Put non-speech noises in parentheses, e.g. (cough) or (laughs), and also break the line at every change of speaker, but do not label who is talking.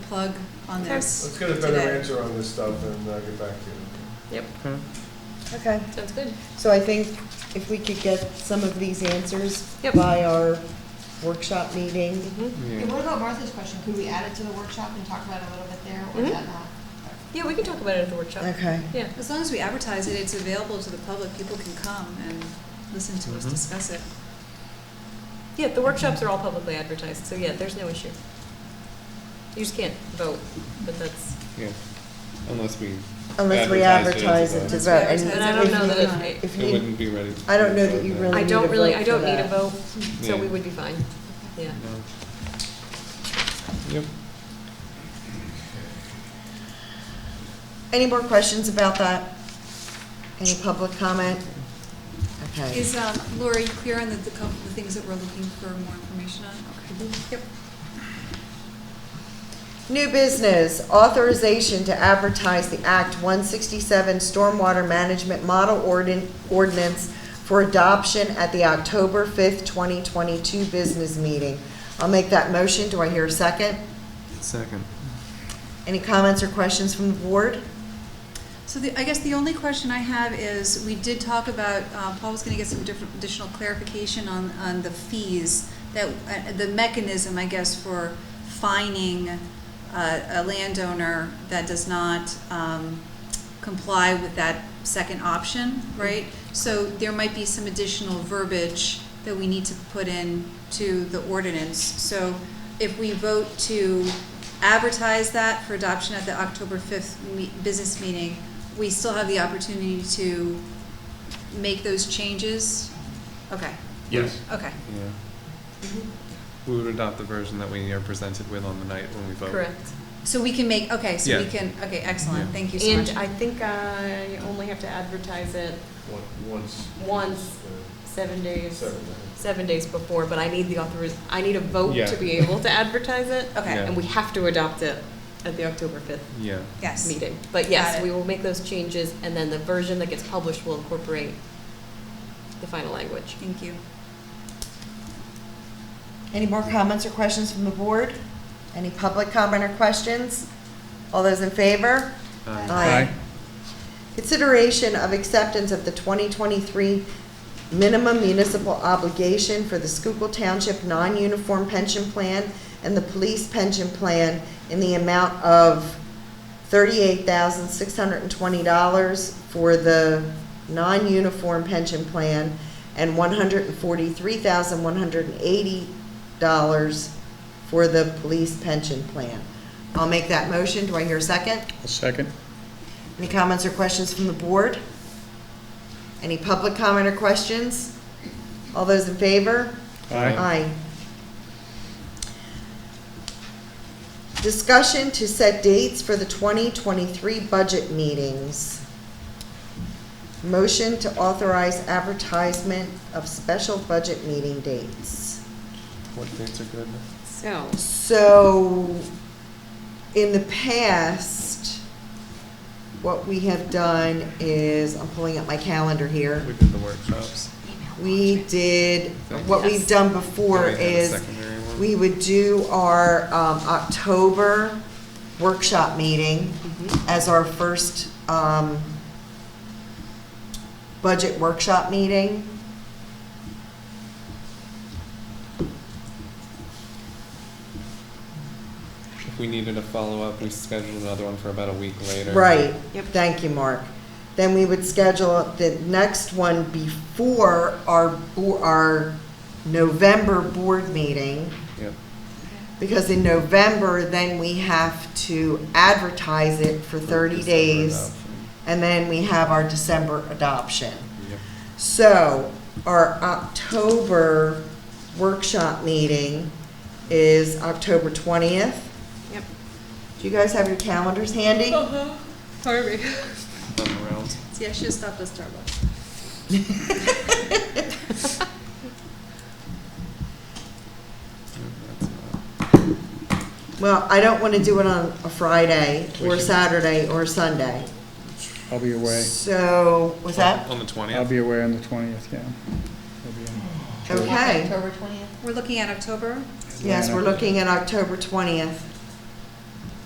plug on this
Let's get a better
today.
answer on this stuff and uh, get back to you.
Okay.
Okay,
Sounds good.
so I think if we could get some of these answers
Yep.
by our workshop meeting,
Mm-hmm.
Yeah,
Yeah.
what about Martha's question? Could we add it to the workshop and talk about it a little bit there, or
Mhm.
is that not?
Yeah, we can talk about it at the workshop.
Mm-hmm. okay.
Yeah.
As long as we advertise it, it's available to the public, people can come and listen to us
Mhm.
discuss it.
Yeah, the workshops are all publicly advertised, so yeah, there's no issue. You just can't vote, but that's,
Yeah. Unless we.
Unless we advertise it to
Unless
vote.
we
and
advertise
but
That's
I don't
if
know
you-
everything
that
on
it,
If
It
you,
wouldn't be ready.
I don't know that you
Yeah.
really-
I
need
don't
a
really,
vote
I
for
don't need a
that.
vote,
(laughs)
so we
Yeah.
would be fine, yeah.
No. Yep.
any more questions about that? Any public comment? Okay.
Is, um, Laura, you clear on the, the co- the things that we're looking for more information on? Okay. Yep.
New business, authorization to advertise the Act 167 Stormwater Management Model Ordin- Ordinance for adoption at the October 5th, 2022 business meeting. I'll make that motion. Do I hear a second?
Second.
Any comments or questions from the board?
So the, I guess the only question I have is, we did talk about, uh, Paul was gonna get some different, additional clarification on, on the fees, that, uh, the mechanism, I guess, for fining uh, a landowner that does not um, comply with that second option, right? So there might be some additional verbiage that we need to put in to the ordinance. So if we vote to advertise that for adoption at the October 5th me- business meeting, we still have the opportunity to make those changes? Okay,
Yes.
okay.
Yeah. We would adopt the version that we are presented with on the night when we vote.
Correct.
So we can make, okay, so we
Yeah.
can, okay, excellent,
Yeah.
thank you so
And
much.
I think I only have to advertise it
One- Once.
once, seven
uh,
days,
Seven.
seven days before, but I need the authoriz, I need a vote
Yeah.
to be able
(laughs)
to advertise it.
Okay.
Yeah.
And we have to adopt it at the October fifth
Yeah.
Yes,
meeting. But
Got
yes,
it.
we will make those changes, and then the version that gets published will incorporate the final language.
thank you.
Any more comments or questions from the board? Any public comment or questions? All those in favor? Aye. Consideration of acceptance of the 2023 minimum municipal obligation for the Schuylkill Township Non-Uniform Pension Plan and the Police Pension Plan in the amount of $38,620 for the non-uniform pension plan and $143,180 for the police pension plan. I'll make that motion. Do I hear a second?
A second?
Any comments or questions from the board? Any public comment or questions? All those in favor?
Aye.
Discussion to set dates for the 2023 budget meetings. Motion to authorize advertisement of special budget meeting dates.
What dates are good?
So,
So, in the past, what we have done is, I'm pulling up my calendar here.
We did the workshops.
We did, what we've
Yes.
done
Yeah,
before
we had a
is,
secondary one.
we would do our um, October workshop meeting as our first um, budget workshop meeting.
If we needed a follow-up, we scheduled another one for about a week later.
Right,
Yep.
thank you, Mark. Then we would schedule the next one before our, bo- our November board meeting.
Yep.
Because in November, then we have to advertise it for 30
December
days,
adoption.
and then we have our December adoption.
Yep.
So our October workshop meeting is October 20th.
yep. Oh,
Do you guys have your calendars handy?
Sorry.
(laughs)
Thumb around.
See, I should have stopped at Starbucks.
Yep, that's not-
Well, I don't want to do it on a Friday, or
We should-
Saturday, or Sunday.
I'll be away.
So, was that,
On the
I'll
twentieth?
be away on the 20th, yeah. I'll be in-
okay?
We're looking at October?
Yes, we're
Atlanta.
looking at October 20th.